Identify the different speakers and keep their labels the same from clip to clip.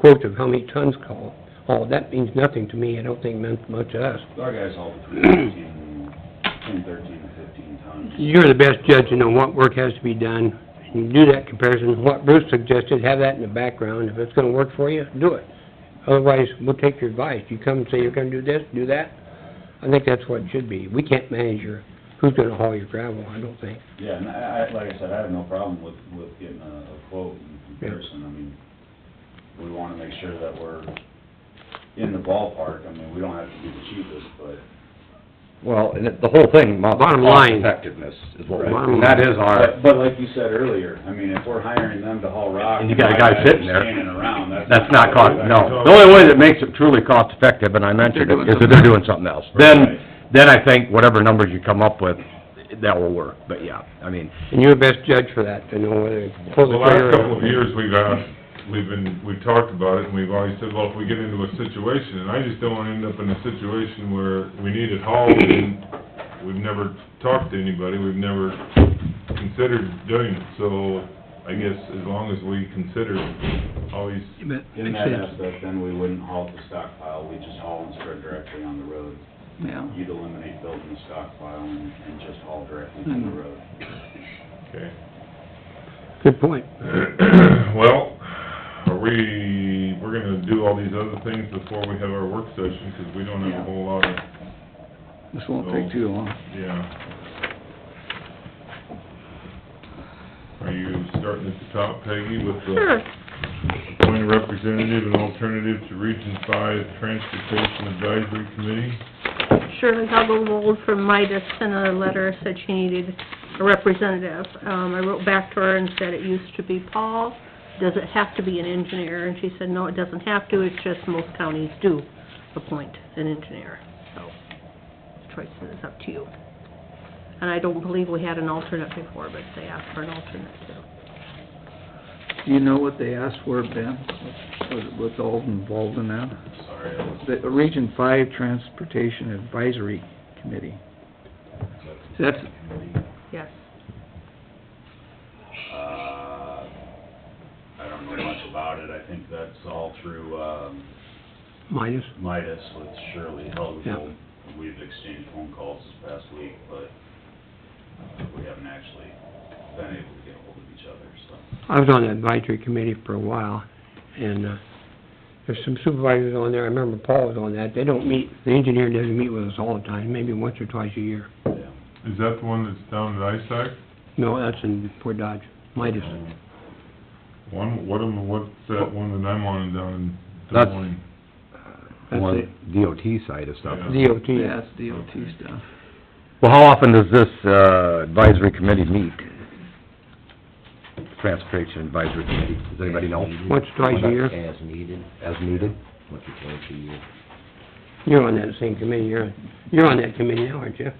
Speaker 1: quotes of how many tons call, oh, that means nothing to me, I don't think it meant much to us.
Speaker 2: Our guys haul between 13, 10, 13, and fifteen tons.
Speaker 1: You're the best judge in on what work has to be done, and do that comparison, what Bruce suggested, have that in the background, if it's gonna work for you, do it. Otherwise, we'll take your advice, you come and say you're gonna do this, do that, I think that's what it should be, we can't manage your, who's gonna haul your gravel, I don't think.
Speaker 2: Yeah, and I, I, like I said, I have no problem with, with getting a a quote in comparison, I mean, we wanna make sure that we're in the ballpark, I mean, we don't have to be the cheapest, but.
Speaker 3: Well, and it- the whole thing amounts to
Speaker 1: Bottom line.
Speaker 3: cost-effectiveness is what, we-
Speaker 1: Bottom
Speaker 3: and that is
Speaker 2: But,
Speaker 3: our,
Speaker 2: but like you said earlier, I mean, if we're hiring them to haul rock.
Speaker 3: And you got a
Speaker 2: my
Speaker 3: guy
Speaker 2: guys
Speaker 3: sitting there.
Speaker 2: Standing around, that's.
Speaker 3: that's not cost, no. The only way that makes it truly cost-effective, and I mentioned it, is if they're doing something else.
Speaker 2: Right.
Speaker 3: Then, then I think whatever numbers you come up with, that will work, but yeah, I mean,
Speaker 1: And you're the best judge for that, to know whether to pull the
Speaker 4: The last
Speaker 1: trigger.
Speaker 4: couple of years, we've asked, we've been, we've talked about it, and we've always said, well, if we get into a situation, and I just don't wanna end up in a situation where we need it hauled, and we've never talked to anybody, we've never considered doing it, so I guess as long as we consider always,
Speaker 1: But-
Speaker 2: In that aspect, then we wouldn't haul the stockpile, we just haul and spread directly on the road.
Speaker 5: Yeah,
Speaker 2: You'd eliminate building a stockpile and, and just haul directly from the road.
Speaker 4: okay.
Speaker 1: Good point.
Speaker 4: Well, are we, we're gonna do all these other things before we have our work session, 'cause we don't have a whole lot of,
Speaker 5: this won't take too long.
Speaker 4: yeah. Are you starting at the top, Peggy, with the appoint a representative and alternative to Region Five Transportation Advisory Committee?
Speaker 6: Shirley Hubble from Midas sent a letter, said she needed a representative. Um, I wrote back to her and said it used to be Paul, does it have to be an engineer? And she said, no, it doesn't have to, it's just most counties do appoint an engineer, so the choice is up to you. And I don't believe we had an alternate before, but they asked for an alternate too.
Speaker 5: Do you know what they asked for, Ben? What- What's all involved in that?
Speaker 2: Sorry, I was,
Speaker 5: The uh, Region Five Transportation Advisory Committee. That's,
Speaker 6: Yes.
Speaker 2: uh, I don't know much about it, I think that's all through, um,
Speaker 1: Minus,
Speaker 2: Midas with Shirley Helgevold.
Speaker 1: Yeah.
Speaker 2: We've exchanged phone calls this past week, but uh, we haven't actually been able to get ahold of each other, so.
Speaker 1: I was on the advisory committee for a while, and, uh, there's some supervisors on there, I remember Paul was on that, they don't meet, the engineer doesn't meet with us all the time, maybe once or twice a year.
Speaker 2: yeah.
Speaker 4: Is that the one that's down at ISAC?
Speaker 1: No, that's in Fort Dodge, Midas.
Speaker 4: One, what am, what's that one that I'm on down in Des
Speaker 3: That's-
Speaker 4: Moines?
Speaker 1: That's
Speaker 3: on DOT side of stuff.
Speaker 4: Yeah.
Speaker 1: DOT.
Speaker 5: that's DOT stuff.
Speaker 3: Well, how often does this, uh, advisory committee meet? Transportation Advisory Committee, does anybody know?
Speaker 1: Once, twice a year.
Speaker 3: As needed. As needed? Once or twice a year.
Speaker 1: You're on that same committee, you're, you're on that committee now, aren't you?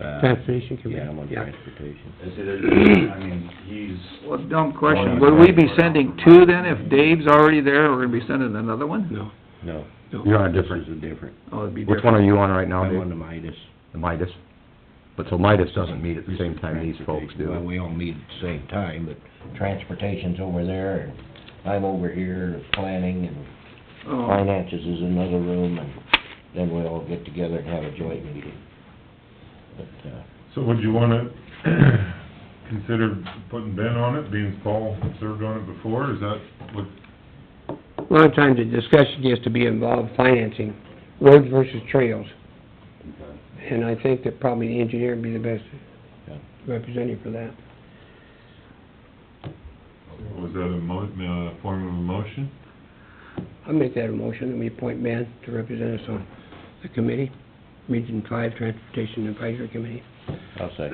Speaker 3: Uh,
Speaker 1: Transportation committee.
Speaker 3: Yeah, I'm on
Speaker 1: Yeah.
Speaker 3: transportation.
Speaker 2: It's either, I mean, he's,
Speaker 5: Well, dumb question, would we be sending two then if Dave's already there, we're gonna be sending another one?
Speaker 1: No,
Speaker 3: No.
Speaker 1: no.
Speaker 3: You're on a different. This is different.
Speaker 5: Oh, it'd be
Speaker 3: Which
Speaker 5: different.
Speaker 3: one are you on right now,
Speaker 7: I'm on
Speaker 3: Dave?
Speaker 7: the Midas.
Speaker 3: The Midas? But so Midas doesn't meet at the same time these folks
Speaker 7: Well,
Speaker 3: do.
Speaker 7: we all meet at the same time, but transportation's over there, and I'm over here, planning, and
Speaker 5: Oh,
Speaker 7: finances is another room, and then we all get together and have a joint meeting. But, uh,
Speaker 4: So would you wanna consider putting Ben on it, being Paul served on it before, is that what,
Speaker 1: A lot of times the discussion gets to be involved financing, roads versus trails. And I think that probably the engineer would be the best
Speaker 7: Yeah.
Speaker 1: representative for that.
Speaker 4: was that a mo, uh, form of a motion?
Speaker 1: I make that a motion, that we appoint Ben to represent us on the committee, Region Five Transportation Advisory Committee.
Speaker 7: I'll say,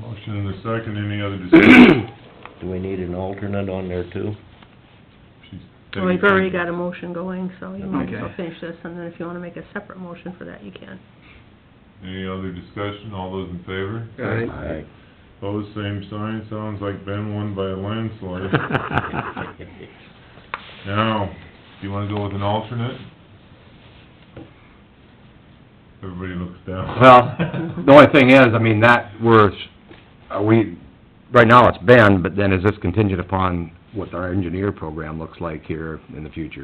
Speaker 4: Motion and a second, any other discussion?
Speaker 7: do we need an alternate on there too?
Speaker 4: She's
Speaker 6: Well, we've already got a motion going, so you might as well
Speaker 5: Okay.
Speaker 6: finish this, and then if you wanna make a separate motion for that, you can.
Speaker 4: Any other discussion, all those in favor?
Speaker 1: All right.
Speaker 7: Aye.
Speaker 4: Pose same sign, sounds like Ben won by a landslide. Now, do you wanna go with an alternate? Everybody looks down.
Speaker 3: Well, the only thing is, I mean, uh, that, we're, are we, right now it's Ben, but then is this contingent upon what our engineer program looks like here in the future.